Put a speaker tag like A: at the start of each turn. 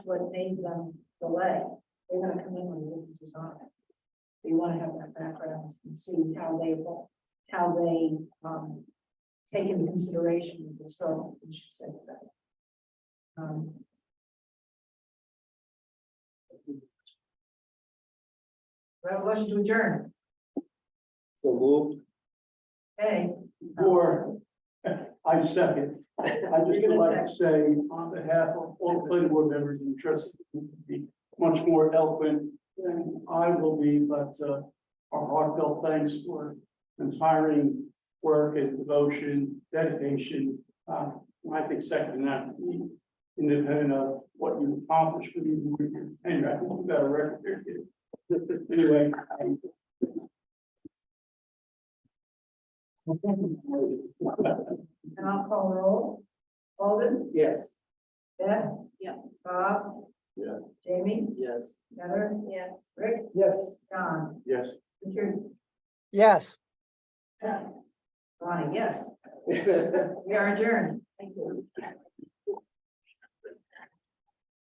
A: what made them delay. They're gonna come in with a different design. We wanna have that background and see how they, will- how they, um, take into consideration the historical, we should say that. Um, do I have a motion to adjourn.
B: So moved.
A: Hey. Oh.
C: Or, I second. I just would like to say on behalf of all planning board members and trustees, be much more eloquent than I will be, but uh, our heartfelt thanks for inspiring work and devotion, dedication. Uh, I think second to none, independent of what you accomplished with your- with your tenure. I think you got a record there, kid. Anyway. I-
A: And I'll call roll. Alden,
B: Yes.
A: Beth?
D: Yes.
A: Bob?
B: Yeah.
A: Jamie?
B: Yes.
A: Heather?
D: Yes.
A: Rick?
B: Yes.
A: Don?
C: Yes.
A: Richard?
E: Yes.
A: Uh, Ronnie, yes. We are adjourned. Thank you.